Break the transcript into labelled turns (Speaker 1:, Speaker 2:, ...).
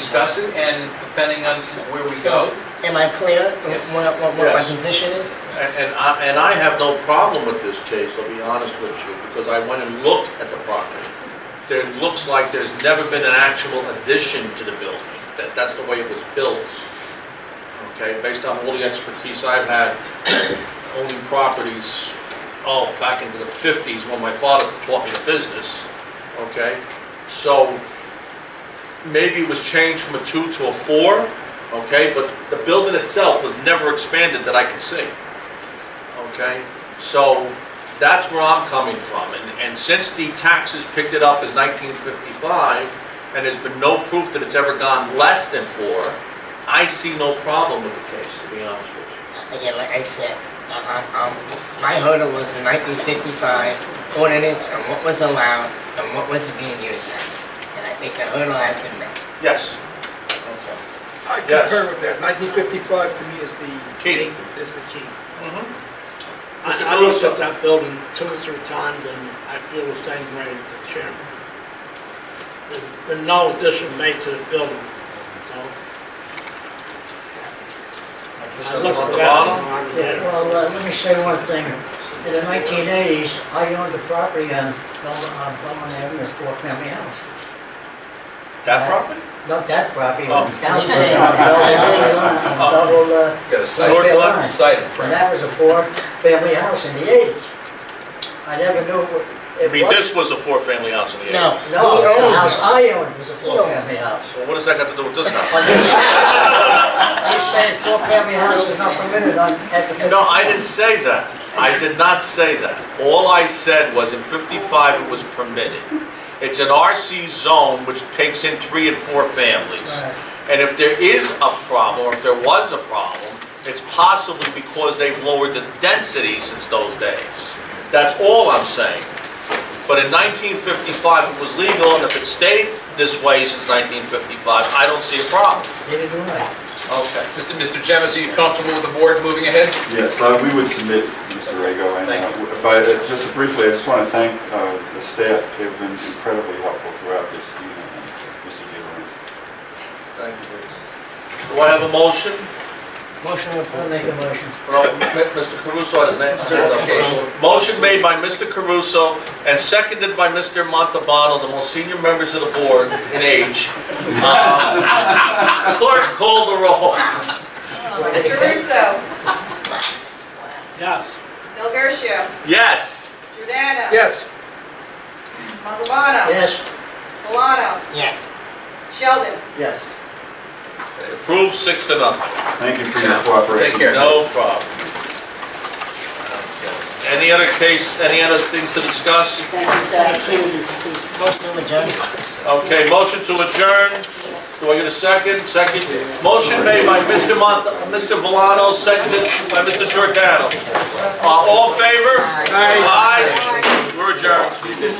Speaker 1: discuss it, and depending on where we
Speaker 2: So,
Speaker 1: go,
Speaker 2: Am I clear on
Speaker 1: Yes.
Speaker 2: what, what- what my
Speaker 3: Yes.
Speaker 2: position is?
Speaker 3: And and I, and I have no problem with this case, I'll be honest with you, because I went and looked at the property. There looks like there's never been an actual addition to the building, that, that's the way it was built. Okay, based on all the expertise I've had owning properties, oh, back into the fifties when my father taught me the business, okay? So, maybe it was changed from a two to a four, okay? But the building itself was never expanded that I can see. Okay, so that's where I'm coming from, and, and since the taxes picked it up as nineteen fifty-five, and there's been no proof that it's ever gone less than four, I see no problem with the case, to be honest with you.
Speaker 2: Again, like I said, I- I'm, I'm, my hurdle was the nineteen fifty-five ordinance and what was allowed and what was being used as. And I think the hurdle has been met.
Speaker 3: Yes. Okay.
Speaker 4: I
Speaker 3: Yes.
Speaker 4: concur with that. 1955 to me is the
Speaker 3: Key.
Speaker 4: date, is the key.
Speaker 5: I
Speaker 3: Mr.
Speaker 5: I looked
Speaker 3: Caruso.
Speaker 5: at that building two or three times, and I feel the same way as the chairman. There's been no addition made to the building, so. I
Speaker 3: Mr.
Speaker 5: looked at
Speaker 3: Montalbano?
Speaker 5: that.
Speaker 6: Yeah,
Speaker 5: yeah.
Speaker 6: well, uh, let me say one thing. In the nineteen eighties, I owned a property on Belmont, on Belmont Avenue, it's four family house.
Speaker 3: That property?
Speaker 6: Not that property,
Speaker 3: Oh.
Speaker 6: but down the street, on Bel- on double, uh,
Speaker 1: get a site,
Speaker 6: North
Speaker 1: a
Speaker 6: Carolina.
Speaker 1: site in
Speaker 6: and
Speaker 1: France.
Speaker 6: that was a four family house in the eighties. I never knew what
Speaker 3: I
Speaker 6: it
Speaker 3: mean,
Speaker 6: was.
Speaker 3: this was a four-family house in the
Speaker 2: No,
Speaker 3: eighties.
Speaker 2: he
Speaker 6: No, the house
Speaker 2: owns it.
Speaker 6: I owned was a
Speaker 2: owned it.
Speaker 6: four family house.
Speaker 3: Well, what does that got to do with this
Speaker 6: But
Speaker 3: house?
Speaker 6: they said, they said four family house is not permitted on, at the.
Speaker 3: No, I didn't say that. I did not say that. All I said was in 55, it was permitted. It's an RC zone which takes in three and four families.
Speaker 6: Right.
Speaker 3: And if there is a problem, or if there was a problem, it's possibly because they've lowered the density since those days. That's all I'm saying. But in 1955, it was legal, and if it stayed this way since 1955, I don't see a problem.
Speaker 6: Did it right.
Speaker 3: Okay.
Speaker 1: Mr. Mr. Jemison, are you comfortable with the board moving ahead?
Speaker 7: Yes, uh, we would submit, Mr. Rego, and,
Speaker 1: Thank
Speaker 7: uh, but uh, just briefly, I just want to thank uh, the staff, they've been incredibly helpful throughout this, you know, and Mr. DiLorenzo.
Speaker 3: Do I have a motion?
Speaker 2: Motion
Speaker 6: I'll
Speaker 2: approved.
Speaker 6: make a motion.
Speaker 3: Well, M- Mr. Caruso has an okay. Motion made by Mr. Caruso and seconded by Mr. Montalbano, the most senior members of the board in age. Uh, Clerk, call the roll.
Speaker 8: Caruso,
Speaker 5: Yes.
Speaker 8: Del Garcia,
Speaker 3: Yes.
Speaker 8: Giordano.
Speaker 4: Yes,
Speaker 8: Montalbano.
Speaker 6: Yes,
Speaker 8: Milano.
Speaker 2: Yes.
Speaker 8: Sheldon.
Speaker 5: Yes.
Speaker 3: Approved six to nothing.
Speaker 7: Thank you for your cooperation.
Speaker 1: Take care.
Speaker 3: No problem. Any other case, any other things to discuss?
Speaker 9: That's, uh, I can't even speak.
Speaker 2: Motion to adjourn.
Speaker 3: Okay, motion to adjourn. Do I get a second? Second. Motion made by Mr. Mont, Mr. Valano, seconded by Mr. Giordano. Uh, all in favor? Aye. We're adjourned.